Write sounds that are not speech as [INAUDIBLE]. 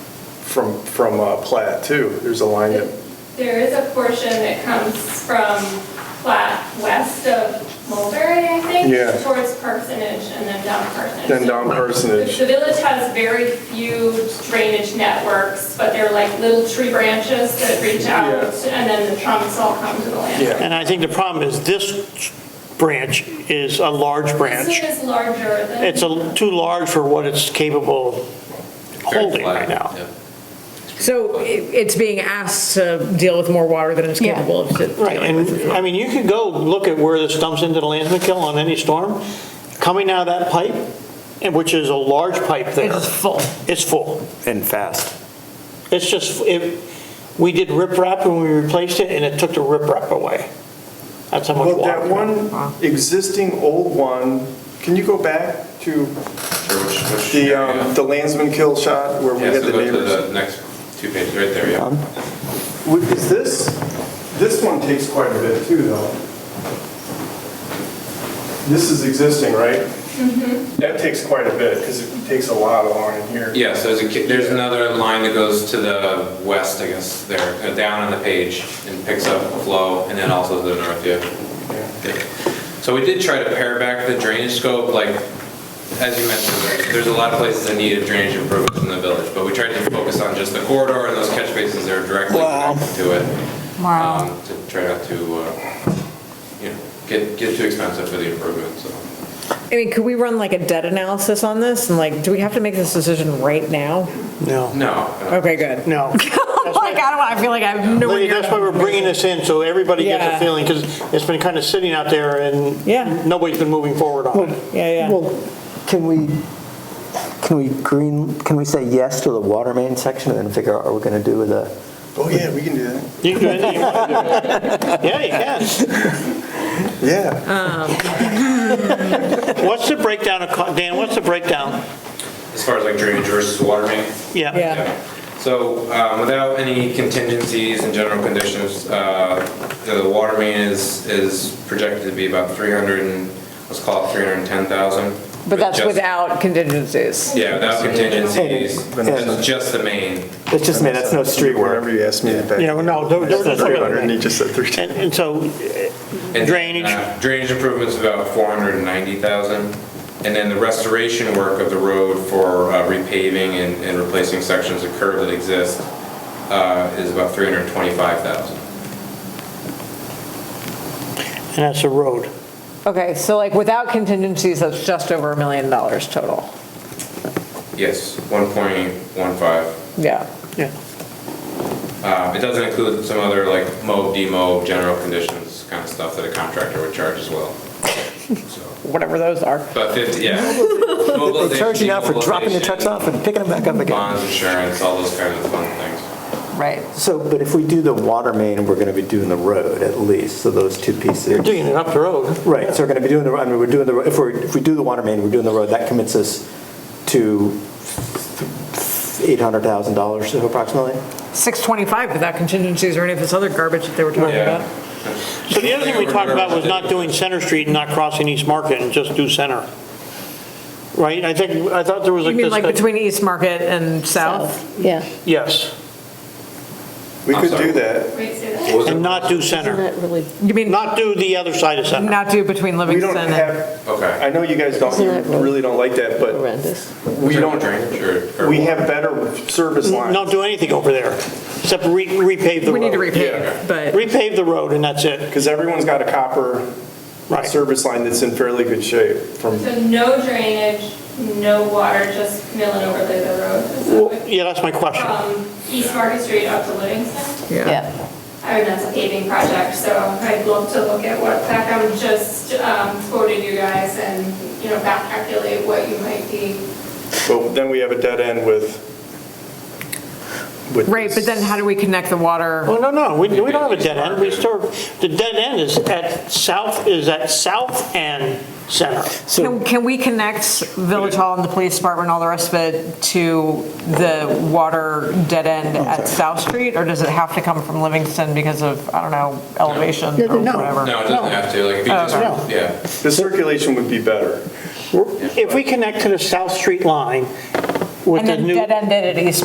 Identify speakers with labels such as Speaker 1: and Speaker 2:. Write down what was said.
Speaker 1: from, from uh, Platt too. There's a line that,
Speaker 2: There is a portion that comes from Platt west of Mulberry, I think.
Speaker 1: Yeah.
Speaker 2: Towards Parsonage and then down Parsonage.
Speaker 1: then down
Speaker 2: The
Speaker 1: Parsonage.
Speaker 2: the village has very few drainage networks, but they're like little tree branches that reach out
Speaker 1: Yeah.
Speaker 2: and then the trunks all come to the land.
Speaker 1: Yeah.
Speaker 3: And I think the problem is this branch is a large
Speaker 2: This
Speaker 3: branch.
Speaker 2: one is larger than.
Speaker 3: It's a- too large for what it's capable of holding right now.
Speaker 4: So i- it's being asked to deal with more water than it's
Speaker 5: Yeah.
Speaker 4: capable of. to-
Speaker 3: Right, and, I mean, you could go look at where this dumps into the Lansman Kill on any storm, coming out of that pipe, and which is a large pipe there.
Speaker 4: It's full.
Speaker 3: It's full.
Speaker 6: and fast.
Speaker 3: It's just, it, we did riprap when we replaced it, and it took the riprap away. That's how much
Speaker 1: But
Speaker 3: water.
Speaker 1: that one existing old one, can you go back to
Speaker 7: Sure, which, which.
Speaker 1: the,
Speaker 7: yeah.
Speaker 1: um, the Landsman Kill shot where we
Speaker 7: Yeah,
Speaker 1: had
Speaker 7: so
Speaker 1: the
Speaker 7: go to
Speaker 1: neighbors?
Speaker 7: the next two pages, right there, yeah.
Speaker 1: Would- Is this, this one takes quite a bit too, though. This is existing, right? That takes quite a bit, because it takes a lot along in here.
Speaker 7: Yeah, so there's a, ki- there's another line that goes to the west, I guess, there, uh, down on the page, and picks up flow, and then also the north, yeah. Yeah. So we did try to pare back the drainage scope, like, as you mentioned, there's- there's a lot of places that needed drainage improvements in the village, but we tried to focus on just the corridor and those catch basins that are directly connected to it.
Speaker 5: Wow.
Speaker 7: um, To try not to, uh, you know, get, get too expensive for the improvement, so.
Speaker 4: I mean, could we run like a debt analysis on this? And like, do we have to make this decision right now?
Speaker 3: No,
Speaker 7: No.
Speaker 4: Okay, good.
Speaker 3: no.
Speaker 4: [LAUGHS] Like, I don't, want- I feel like I have no
Speaker 3: Lee,
Speaker 4: idea.
Speaker 3: that's why we're bringing this in, so everybody gets
Speaker 4: Yeah.
Speaker 3: a feeling, because it's been kind of sitting out there and
Speaker 4: Yeah.
Speaker 3: nobody's been moving forward on it.
Speaker 4: Yeah, yeah.
Speaker 8: Well, can we, can we green, can we say yes to the water main section and then figure out what we're going to do with the,
Speaker 1: Oh, yeah, we can do that.
Speaker 3: You can do anything you want to
Speaker 4: [LAUGHS]
Speaker 3: do. Yeah, you can.
Speaker 1: Yeah.
Speaker 3: What's the breakdown of, co- Dan, what's the breakdown?
Speaker 7: As far as like drainage versus water main?
Speaker 3: Yeah.
Speaker 4: Yeah.
Speaker 7: So um, without any contingencies and general conditions, uh, the water main is, is projected to be about 300, and let's call it 310,000.
Speaker 4: But that's
Speaker 7: just-
Speaker 4: without contingencies.
Speaker 7: Yeah, without contingencies,
Speaker 1: And-
Speaker 7: that's just the main.
Speaker 8: it's just, man, that's no street work.
Speaker 1: Wherever you asked me to back.
Speaker 3: You know, no, there- there was a
Speaker 1: Three hundred,
Speaker 3: limit.
Speaker 1: and he just said three ten.
Speaker 3: And, and so,
Speaker 7: And,
Speaker 3: Drainage.
Speaker 7: uh, Drainage improvements about 490,000, and then the restoration work of the road for uh, repaving and and replacing sections of curb that exist uh, is about 325,000.
Speaker 3: and that's a road.
Speaker 4: Okay, so like without contingencies, that's just over a million dollars total.
Speaker 7: Yes, 1.15.
Speaker 4: Yeah.
Speaker 3: Yeah.
Speaker 7: Um, It doesn't include some other like mow, demo, general conditions kind of stuff that a contractor would charge as well. So,
Speaker 4: Whatever those are.
Speaker 7: But 50, yeah.
Speaker 8: They charge you now for dropping the trucks off and picking them back up again.
Speaker 7: Bonds, insurance, all those kind of fun things.
Speaker 4: Right.
Speaker 8: So, but if we do the water main, we're going to be doing the road at least, so those two pieces.
Speaker 3: Digging it up the road.
Speaker 8: Right, so we're going to be doing the, I mean, we're doing the, if we're, if we do the water main, we're doing the road, that commits us to $800,000 approximately?
Speaker 4: 625 without contingencies or any of this other garbage that they were talking
Speaker 7: Yeah.
Speaker 4: about.
Speaker 3: So the other thing we talked about was not doing Center Street and not crossing East Market and just do Center. Right? I think, I thought there was
Speaker 4: You
Speaker 3: like
Speaker 4: mean like
Speaker 3: this,
Speaker 4: between East Market and South?
Speaker 5: Yeah.
Speaker 3: yes,
Speaker 1: We
Speaker 7: I'm
Speaker 1: could
Speaker 7: sorry.
Speaker 1: do that.
Speaker 2: Wait, say that.
Speaker 7: What was it?
Speaker 3: and not do
Speaker 5: Isn't
Speaker 3: Center.
Speaker 5: that really,
Speaker 4: You mean
Speaker 3: Not do the other side of Center.
Speaker 4: not do between
Speaker 1: We don't
Speaker 4: Livingston and?
Speaker 1: have,
Speaker 7: Okay.
Speaker 1: I know you guys don't,
Speaker 5: Isn't that
Speaker 1: you
Speaker 5: road?
Speaker 1: really don't like that, but
Speaker 5: horrendous.
Speaker 1: we don't,
Speaker 7: Drainage or- or-
Speaker 1: we have better service lines.
Speaker 3: Don't do anything over there, except re- repave the road.
Speaker 4: We need to
Speaker 1: Yeah.
Speaker 4: repave, but.
Speaker 3: Repave the road and that's it,
Speaker 1: Because everyone's got a copper
Speaker 3: right.
Speaker 1: service line that's in fairly good shape from
Speaker 2: So no drainage, no water, just milling over the the road. Is that
Speaker 3: Well,
Speaker 2: what-
Speaker 3: Yeah, that's my question.
Speaker 2: From East Market Street up to Livingston.
Speaker 5: Yeah.
Speaker 2: I mean, that's a paving project, so I'd love to look at what Peckham just um, quoted you guys and, you know, back calculate what you might be.
Speaker 1: But then we have a dead end with. with
Speaker 4: Right, but
Speaker 1: this.
Speaker 4: then how do we connect the water?
Speaker 3: Well, no, no, we, we don't have a dead end, we serve, the dead end is at south, is at south and center.
Speaker 4: Can can we connect Village Hall and the police department and all the rest of it to the water dead end at South Street? Or does it have to come from Livingston because of, I don't know, elevation or whatever?
Speaker 7: No, it doesn't have to, like, if you
Speaker 3: Uh,
Speaker 7: just, yeah.
Speaker 1: The circulation would be better.
Speaker 3: If we connect to the South Street line with
Speaker 4: And
Speaker 3: the
Speaker 4: then
Speaker 3: new.
Speaker 4: dead end it at East